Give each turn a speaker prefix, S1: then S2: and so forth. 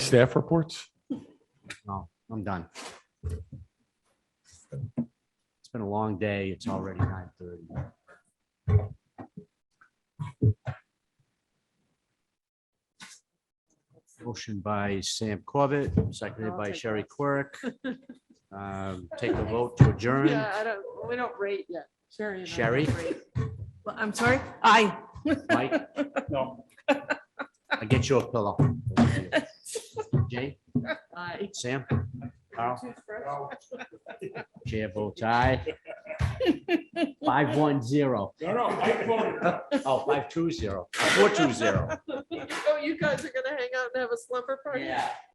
S1: staff reports?
S2: No, I'm done. It's been a long day. It's already nine thirty. Motion by Sam Corbett, seconded
S3: I'll
S2: by
S3: take
S2: Sherry
S3: that.
S2: Quirk. Um, Take the vote to adjourn.
S3: Yeah, I don't, we don't rate yet. Sherry. and I don't
S2: Sherry?
S3: rate. Well, I'm sorry? Aye.
S2: Mike? No. I get you a pillow. Jay,
S3: Aye.
S2: Sam, Carl, chair votes aye. Five one zero.
S4: No, no, I voted.
S2: Oh, five two zero, four two zero.
S3: Oh, you guys are gonna hang out and have a slumber party?